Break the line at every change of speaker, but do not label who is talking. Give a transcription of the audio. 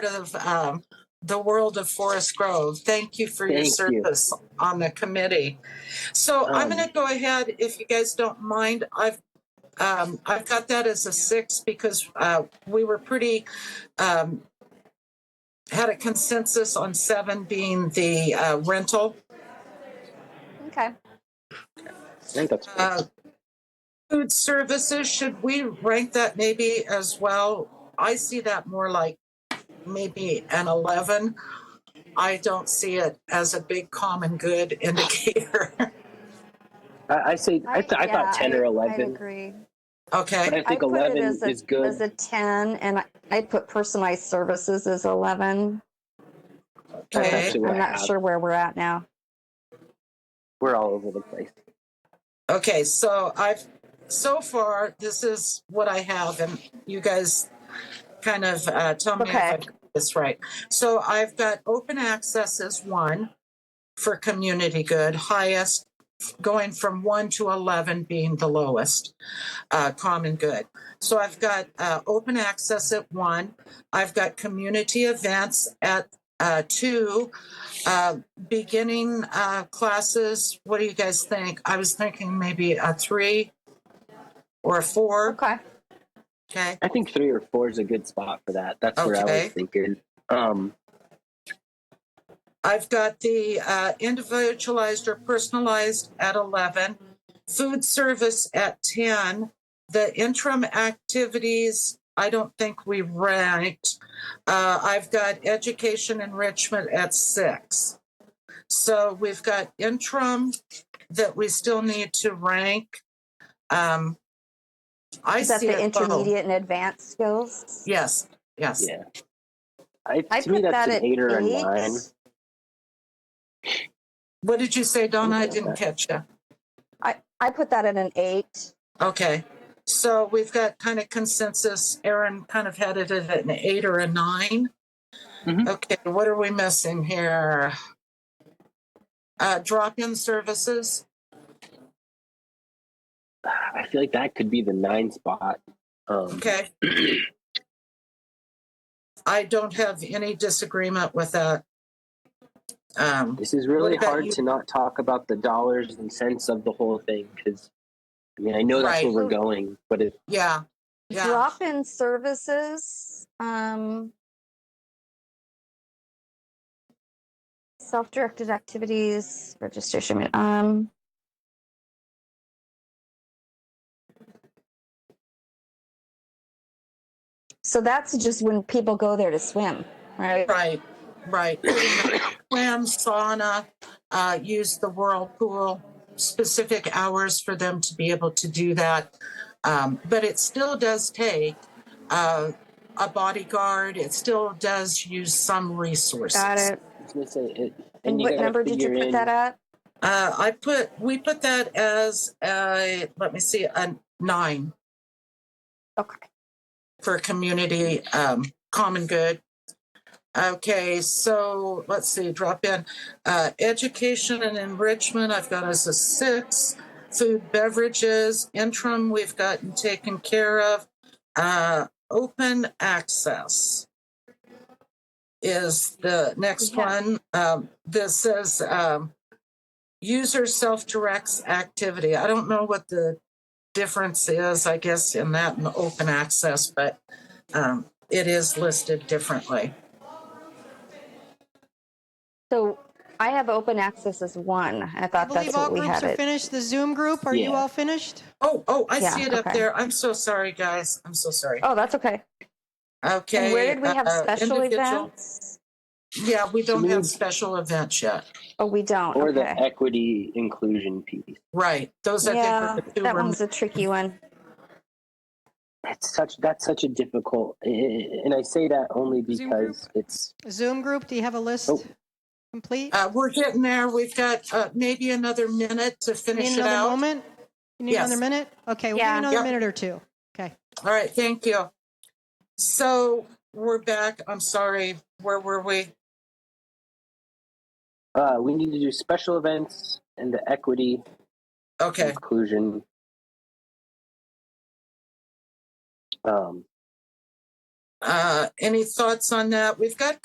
of um, the world of Forest Grove. Thank you for your
Thank you.
service on the committee. So I'm
Um,
going to go ahead, if you guys don't mind, I've um, I've got that as a six because uh, we were pretty um, had a consensus on seven being the uh, rental.
Okay.
I think that's
Uh, Food services, should we rank that maybe as well? I see that more like maybe an 11. I don't see it as a big common good indicator.
I, I say I, th- I
yeah,
thought ten or
I'd
eleven,
agree.
but
Okay,
I think
I put it
eleven
as a-
is good.
As a ten, and I, I put personalized services as eleven.
That's
Okay.
actually what
I'm
I
not
have.
sure where we're at now.
We're all over the place.
okay, so I've, so far, this is what I have and you guys kind of uh, tell me if
Okay.
I got this right. So I've got open access as one for community good, highest going from one to 11 being the lowest uh, common good. So I've got uh, open access at one. I've got community events at uh, two, uh, beginning uh, classes. What do you guys think? I was thinking maybe a three or a four.
Okay.
Okay.
I think three or four is a good spot for that. That's where I
Okay.
was thinking. Um,
I've got the uh, individualized or personalized at 11, food service at 10, the interim activities, I don't think we ranked. Uh, I've got education enrichment at 6. So we've got interim that we still need to rank. Um, I
Is that
see
the
it both.
intermediate and advanced skills?
Yes, yes.
yeah, I,
I
to me
put
that's
that at
an eight or a
eight.
nine.
What did you say, Donna? I
Okay.
didn't catch you.
I put that at an eight.
Okay, so we've got kind of consensus. Aaron kind of had it at an eight or a 9
Mhm.
Okay, what are we missing here? Uh, drop-in services.
I feel like that could be the nine spot. Um,
Okay. I don't have any disagreement with that. Um,
This is really
about
hard
you?
to not talk about the dollars and cents of the whole thing because, I mean, I know that's where
Right.
we're going, but it,
yeah, yeah.
Drop-in services, um, self-directed activities, registration, um. So that's just when people go there to swim, right?
Right, right. Swim, sauna, uh, use the whirlpool, specific hours for them to be able to do that. Um, but it still does take uh, a bodyguard. It still does use some resources.
Got it.
I was gonna say it.
And
you
what
gotta
number did you
figure
put
in-
that at?
Uh, I put we put that as a let me see a nine
Okay,
for community um, common good. Okay, so let's see, drop in. Uh, education and enrichment, I've got as a six. Food, beverages, interim, we've gotten taken care of. Uh, open access is the next
We have-
one. Um, this says um, user self directs activity. I don't know what the difference is, I guess, in that and open access, but um, it is listed differently.
so I have open access as one. I
I
thought that's
believe all
what we
groups
had
are
it.
finished. The Zoom group, are you
Yeah.
all finished?
Oh, oh, I
Yeah,
see it up
okay.
there. I'm so sorry, guys. I'm so sorry.
Oh, that's okay.
Okay.
And where did we have
uh,
special
individual-
events?
Yeah, we don't
Community-
have special events yet.
Oh, we don't.
or
Okay.
the equity inclusion piece.
Right. Those I
Yeah,
think are the two
that
rem-
one's a tricky one.
That's such that's such a difficult, i- i- and I say that only
Zoom group?
because it's
Zoom group, do you have a list
Oh.
complete?
uh, we're getting there. We've got uh, maybe another minute to
You
finish
need
it out.
another moment? You need
Yes.
another minute? Okay, we'll give
Yeah.
you another
Yep.
minute or two. Okay.
All right. Thank you. So we're back. I'm sorry. Where were we?
uh, we need to do special events and the equity
Okay.
inclusion. Um,
Uh, any thoughts on that? We've got